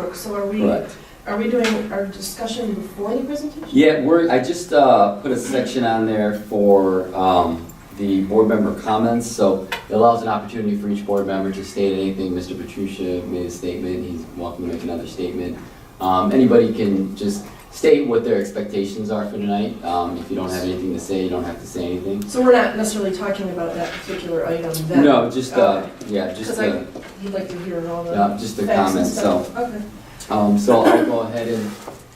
work, so are we, Correct. are we doing our discussion before the presentation? Yeah, we're, I just uh, put a section on there for um, the board member comments, so it allows an opportunity for each board member to state anything. Mr. Petrucia made a statement, he's welcome to make another statement. Um, Anybody can just state what their expectations are for tonight. Um, If you don't have anything to say, you don't have to say anything. So we're not necessarily talking about that particular item then? No, just, uh, Okay. yeah, just, Because I, the- you'd like to hear all the yeah, just the facts and comments, so. stuff. Okay. Um, So I'll go ahead and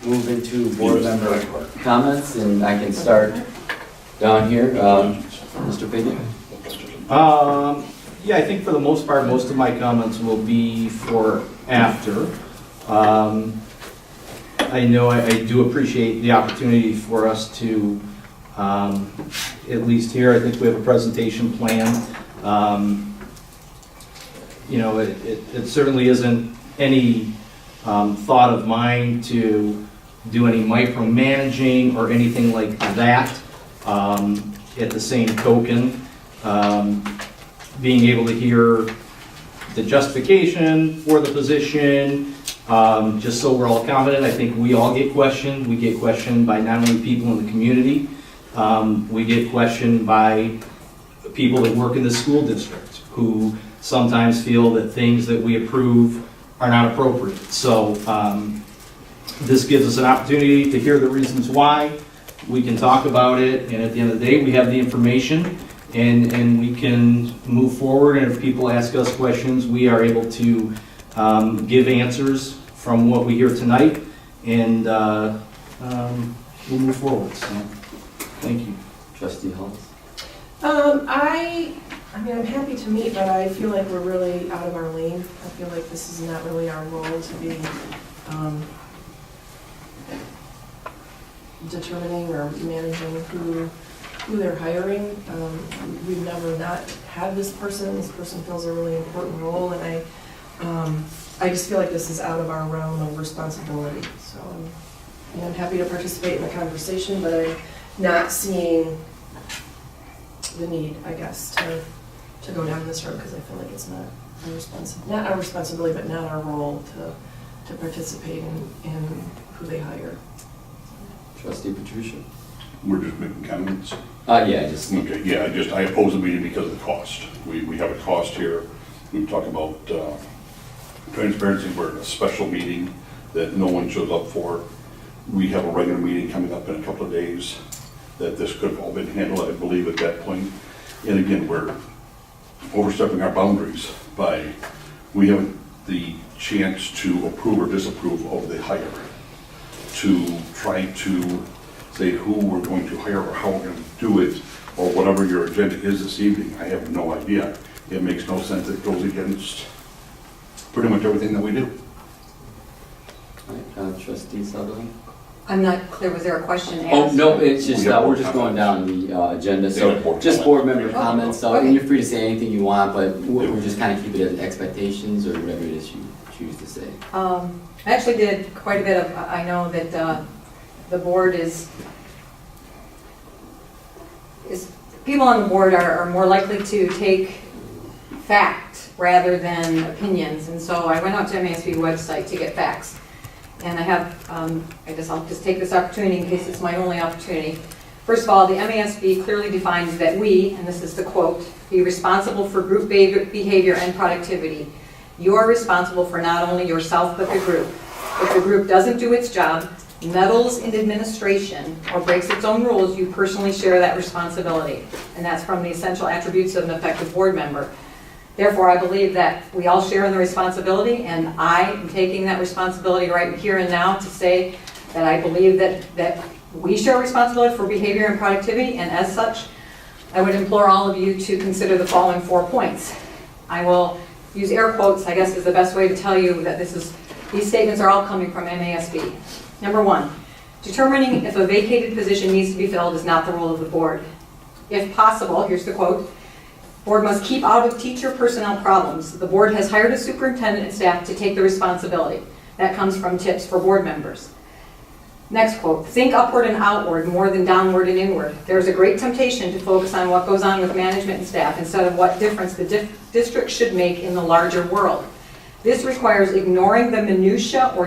move into board member comments, and I can start down here. Um, Mr. Pickett? Um, yeah, I think for the most part, most of my comments will be for after. Um, I know I, I do appreciate the opportunity for us to, um, at least here, I think we have a presentation plan. Um, You know, it, it it certainly isn't any, um, thought of mine to do any micromanaging or anything like that. Um, at the same token, um, being able to hear the justification for the position, um, just so we're all confident. I think we all get questioned. We get questioned by not only people in the community, um, we get questioned by people that work in the school district who sometimes feel that things that we approve are not appropriate. So um, this gives us an opportunity to hear the reasons why. We can talk about it, and at the end of the day, we have the information and, and we can move forward, and if people ask us questions, we are able to um, give answers from what we hear tonight, and uh, um, we'll move forward, so, thank you. Trustee Holmes? Um, I, I mean, I'm happy to meet, but I feel like we're really out of our lane. I feel like this is not really our role to be, um, determining or managing who, who they're hiring. Um, we've never not had this person. This person fills a really important role, and I, um, I just feel like this is out of our realm of responsibility, so. um, And I'm happy to participate in the conversation, but I'm not seeing the need, I guess, to, to go down this road, because I feel like it's not our responsibility, not our responsibility, but not our role to, to participate in, in who they hire. Trustee Patricia? We're just making comments. Uh, yeah, just, Okay, yeah, I just, I oppose the meeting because of the cost. We, we have a cost here. We talk about uh, transparency, we're in a special meeting that no one shows up for. We have a regular meeting coming up in a couple of days, that this could have all been handled, I believe, at that point. And again, we're overstepping our boundaries by, we have the chance to approve or disapprove of the hire. to try to say who we're going to hire or how we're going to do it, or whatever your agenda is this evening, I have no idea. It makes no sense, it goes against pretty much everything that we do. all right, uh, trustee Sutherland? I'm not clear, was there a question asked? Oh, no, it's just, We have uh, we're board just going down the, uh, agenda, Yeah, so board just board comment. member Okay. comments, so, and you're free to say anything you want, but we're we're just kind of keep it as expectations or whatever it is you choose to say. Um, I actually did quite a bit of, I know that uh, the board is, is, people on the board are are more likely to take fact rather than opinions. And so I went out to MASB website to get facts. And I have, um, I guess I'll just take this opportunity in case it's my only opportunity. First of all, the MASB clearly defines that we, and this is the quote, "be responsible for group behavior- behavior and productivity." You are responsible for not only yourself, but the group. If the group doesn't do its job, meddles in administration, or breaks its own rules, you personally share that responsibility. And that's from the essential attributes of an effective board member. Therefore, I believe that we all share in the responsibility, and I am taking that responsibility right here and now to say that I believe that, that we share responsibility for behavior and productivity, and as such, I would implore all of you to consider the following four points. I will use air quotes, I guess is the best way to tell you that this is, these statements are all coming from MASB. Number one, determining if a vacated position needs to be filled is not the role of the board. If possible, here's the quote, "Board must keep out of teacher personnel problems. The board has hired a superintendent and staff to take the responsibility." That comes from tips for board members. Next quote, "Think upward and outward more than downward and inward. There's a great temptation to focus on what goes on with management and staff instead of what difference the dif- district should make in the larger world. This requires ignoring the minutia or